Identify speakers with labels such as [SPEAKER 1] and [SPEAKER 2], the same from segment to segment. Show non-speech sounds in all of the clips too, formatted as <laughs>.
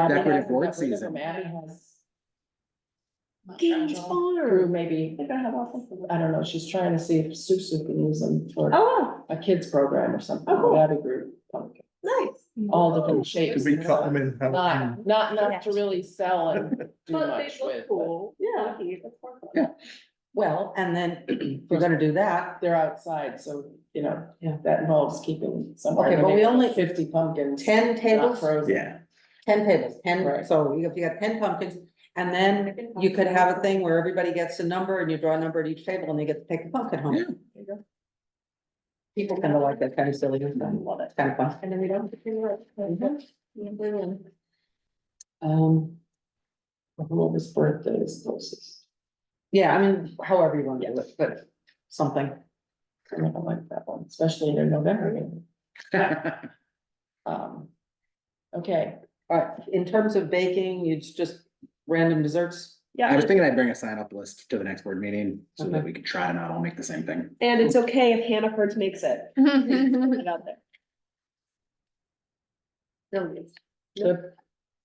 [SPEAKER 1] Decorative board season.
[SPEAKER 2] Maddie has
[SPEAKER 3] Gaines
[SPEAKER 2] through
[SPEAKER 3] Farm.
[SPEAKER 2] maybe,
[SPEAKER 3] They're gonna have all.
[SPEAKER 2] I don't know, she's trying to see if Susu can use them for
[SPEAKER 3] Oh,
[SPEAKER 2] a kids program or something,
[SPEAKER 3] Oh.
[SPEAKER 2] that'd be great.
[SPEAKER 3] wow, nice.
[SPEAKER 2] All different shapes.
[SPEAKER 4] Could we cut them in half?
[SPEAKER 2] Not, not enough to really
[SPEAKER 4] <laughs>
[SPEAKER 2] sell and do
[SPEAKER 3] But they
[SPEAKER 2] much with,
[SPEAKER 3] look
[SPEAKER 2] but
[SPEAKER 3] cool. Yeah. that's wonderful.
[SPEAKER 1] Yeah.
[SPEAKER 5] Well, and then if we're gonna do that.
[SPEAKER 2] they're outside, so, you know,
[SPEAKER 5] Yeah.
[SPEAKER 2] that involves keeping somewhere.
[SPEAKER 5] Okay,
[SPEAKER 2] in the
[SPEAKER 5] but we
[SPEAKER 2] neighborhood,
[SPEAKER 5] only-
[SPEAKER 2] Fifty pumpkins.
[SPEAKER 5] Ten
[SPEAKER 2] not
[SPEAKER 5] tables,
[SPEAKER 2] frozen.
[SPEAKER 4] Yeah,
[SPEAKER 5] ten tables, ten,
[SPEAKER 2] Right.
[SPEAKER 5] so you got, you got ten pumpkins. And then you could have a thing where everybody gets a number and you draw a number at each table and they get to take a pumpkin
[SPEAKER 1] Yeah.
[SPEAKER 5] home. People kind of like that kind of silly, stuff. love that kind of fun.
[SPEAKER 3] And then we don't. have to do it.
[SPEAKER 2] Mm-hmm.
[SPEAKER 3] Yeah, we will.
[SPEAKER 5] Um,
[SPEAKER 2] Whoever's birthday is closest,
[SPEAKER 5] yeah, I mean, however you want to do it, but something.
[SPEAKER 2] I don't like that one, especially in November. maybe. Um, okay,
[SPEAKER 5] All right, in terms of baking, it's just random desserts.
[SPEAKER 1] I
[SPEAKER 3] Yeah,
[SPEAKER 1] was thinking I'd bring a sign up list to the next board meeting so that we could try and not all make the same thing.
[SPEAKER 3] and it's okay if Hannaford's makes it. Put it out there.
[SPEAKER 2] the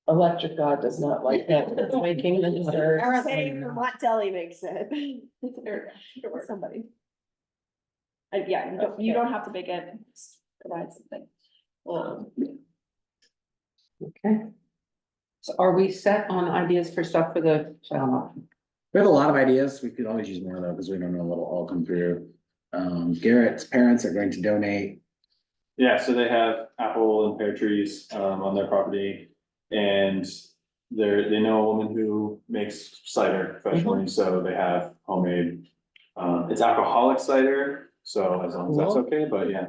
[SPEAKER 2] electric god does not like that, it's making the dessert.
[SPEAKER 3] Say Vermont Deli makes it. <laughs> Or Somebody. And yeah, you don't, you don't have to make it, just provide something. Um, Well,
[SPEAKER 5] Okay. So are we set on ideas for stuff for the child option?
[SPEAKER 1] We have a lot of ideas. We could always use more though, because we don't know what'll all come through. Um, Garrett's parents are going to donate.
[SPEAKER 6] Yeah, so they have apple and pear trees um on their property. And they're, they know a woman who makes cider professionally, so they have homemade. Um, it's alcoholic cider, so as long as that's okay, but yeah.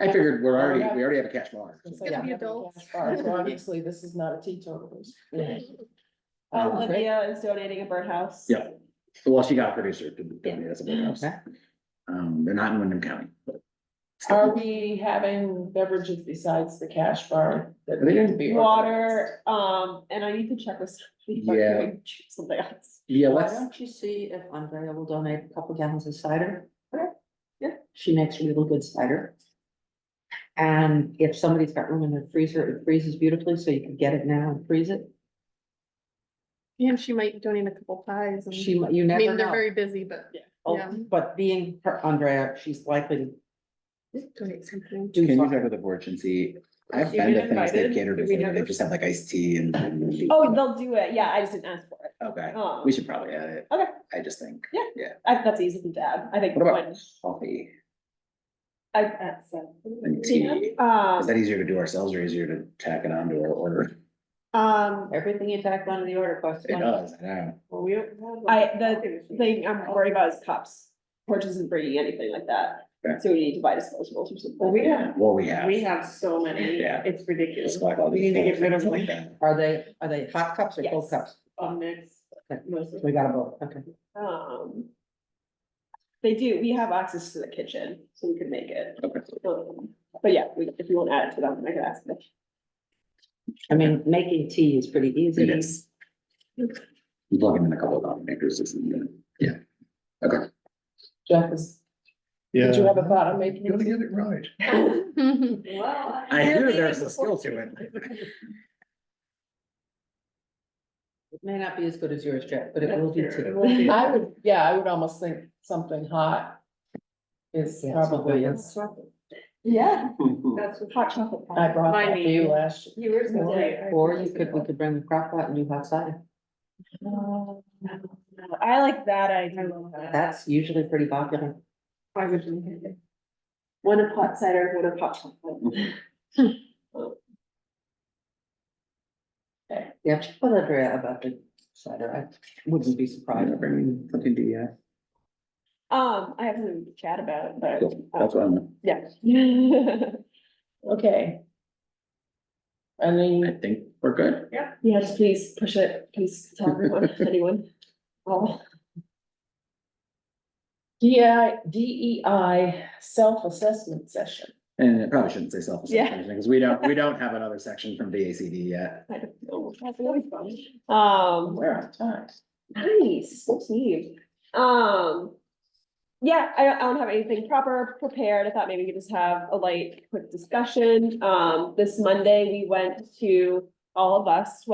[SPEAKER 1] I figured we're already, we already have a cash bar.
[SPEAKER 2] It's
[SPEAKER 3] Gonna
[SPEAKER 2] like-
[SPEAKER 3] be adults.
[SPEAKER 2] So Obviously, this is not a teetotalers.
[SPEAKER 3] uh, Olivia is donating a birdhouse.
[SPEAKER 1] Oh, Yeah. Well, she got a producer to donate us a big house.
[SPEAKER 5] Okay.
[SPEAKER 1] Um, they're not in Wyndham County, but.
[SPEAKER 2] Are we having beverages besides the cash bar? that
[SPEAKER 1] Are they gonna
[SPEAKER 2] be organized?
[SPEAKER 3] Water, um, and I need to check with. somebody about
[SPEAKER 1] Yeah.
[SPEAKER 3] doing <laughs> Something else.
[SPEAKER 1] Yeah,
[SPEAKER 5] Why
[SPEAKER 1] let's,
[SPEAKER 5] don't you see if Andrea will donate a couple gallons of cider?
[SPEAKER 3] Okay, yeah.
[SPEAKER 5] She makes really good cider. And if somebody's got room in their freezer, it freezes beautifully, so you can get it now and freeze it.
[SPEAKER 7] And she might donate a couple pies and,
[SPEAKER 5] She, might- you
[SPEAKER 7] I
[SPEAKER 5] never
[SPEAKER 7] mean, they're
[SPEAKER 5] know.
[SPEAKER 7] very busy, but yeah.
[SPEAKER 5] Oh, But being her Andrea, she's likely to
[SPEAKER 7] donate something.
[SPEAKER 1] can
[SPEAKER 5] do
[SPEAKER 1] you check
[SPEAKER 5] something.
[SPEAKER 1] with the board and see? I've
[SPEAKER 7] If you
[SPEAKER 1] been
[SPEAKER 7] get
[SPEAKER 1] to things
[SPEAKER 7] invited,
[SPEAKER 1] they've catered
[SPEAKER 7] do we
[SPEAKER 1] before,
[SPEAKER 7] have
[SPEAKER 1] they
[SPEAKER 7] it?
[SPEAKER 1] just have like iced tea and.
[SPEAKER 3] Oh, they'll do it, yeah, I just didn't ask for it,
[SPEAKER 1] Okay,
[SPEAKER 3] um,
[SPEAKER 1] we should probably add it.
[SPEAKER 3] Okay.
[SPEAKER 1] I just think
[SPEAKER 3] I think that's easy to add, I think.
[SPEAKER 1] What about-
[SPEAKER 3] when
[SPEAKER 1] coffee
[SPEAKER 3] I, that's. uh,
[SPEAKER 1] and tea. Is that e-
[SPEAKER 3] Um,
[SPEAKER 1] easier to do ourselves or easier to tack it onto our order?
[SPEAKER 3] um,
[SPEAKER 5] Everything you tack onto the order costs
[SPEAKER 1] It
[SPEAKER 5] money.
[SPEAKER 1] does, I know.
[SPEAKER 5] Well, we don't have
[SPEAKER 3] I,
[SPEAKER 5] a-
[SPEAKER 3] the thing I'm worried about is cups, Porch isn't bringing anything like that,
[SPEAKER 1] Okay.
[SPEAKER 3] so we need to buy disposables or something.
[SPEAKER 8] Well, we have,
[SPEAKER 1] What we have.
[SPEAKER 8] we have so many,
[SPEAKER 1] Yeah.
[SPEAKER 8] it's
[SPEAKER 1] It's
[SPEAKER 8] ridiculous.
[SPEAKER 1] like all
[SPEAKER 8] We
[SPEAKER 1] these
[SPEAKER 8] need to get rid of
[SPEAKER 1] things
[SPEAKER 8] like
[SPEAKER 1] that.
[SPEAKER 5] Are they, are they hot cups or cold
[SPEAKER 3] Yes.
[SPEAKER 5] cups?
[SPEAKER 8] a mix, mostly.
[SPEAKER 5] We got them both, okay.
[SPEAKER 3] Um. They do, we have access to the kitchen, so we could make it,
[SPEAKER 1] Okay.
[SPEAKER 3] Um, but yeah, we, if you want to add it to them, I could ask them.
[SPEAKER 5] I mean, making tea is pretty easy.
[SPEAKER 1] It is. You Plug in a couple of coffee makers, it's, yeah. Okay.
[SPEAKER 2] Jeff, is-
[SPEAKER 4] yeah.
[SPEAKER 2] did you have a thought on making?
[SPEAKER 4] Gotta
[SPEAKER 2] it?
[SPEAKER 4] get it right.
[SPEAKER 1] <laughs> I hear there's a skill to it.
[SPEAKER 5] It may not be as good as yours, Jack, but it will do too.
[SPEAKER 2] I would, yeah, I would almost think something hot is
[SPEAKER 5] Yeah,
[SPEAKER 2] probably,
[SPEAKER 5] something
[SPEAKER 2] it's-
[SPEAKER 3] Yeah.
[SPEAKER 6] <laughs>
[SPEAKER 8] That's what-
[SPEAKER 3] Hot chocolate. pie.
[SPEAKER 2] I brought that to you last. year.
[SPEAKER 8] You were supposed to-
[SPEAKER 5] Or you could, we could bring the crock pot and do hot cider.
[SPEAKER 3] No, no, no. I like that
[SPEAKER 8] I
[SPEAKER 3] idea.
[SPEAKER 8] love that.
[SPEAKER 5] That's usually pretty popular.
[SPEAKER 8] I would drink it.
[SPEAKER 3] One of hot cider, one of hot chocolate.
[SPEAKER 5] Yeah, check with Andrea about the cider. I wouldn't be surprised.
[SPEAKER 1] Bring something to you.
[SPEAKER 3] Um, I have something to chat about, but, um,
[SPEAKER 1] Cool, That's
[SPEAKER 8] Oh.
[SPEAKER 1] what I'm,
[SPEAKER 3] yeah. <laughs>
[SPEAKER 2] Okay. I
[SPEAKER 1] I
[SPEAKER 2] mean,
[SPEAKER 1] think we're good.
[SPEAKER 3] Yes, please push it, please tell everyone, anyone. Oh.
[SPEAKER 2] DI, DEI E self-assessment session.
[SPEAKER 1] And it probably shouldn't say self
[SPEAKER 3] Yeah.
[SPEAKER 1] because we don't, we don't have another section from DACD yet.
[SPEAKER 3] I don't know. That's really fun. Um,
[SPEAKER 2] We're on time.
[SPEAKER 3] nice, so neat. Um, yeah, I, don't- I don't have anything proper prepared. I thought maybe we could just have a light, quick discussion. Um, this Monday, we went to all of us,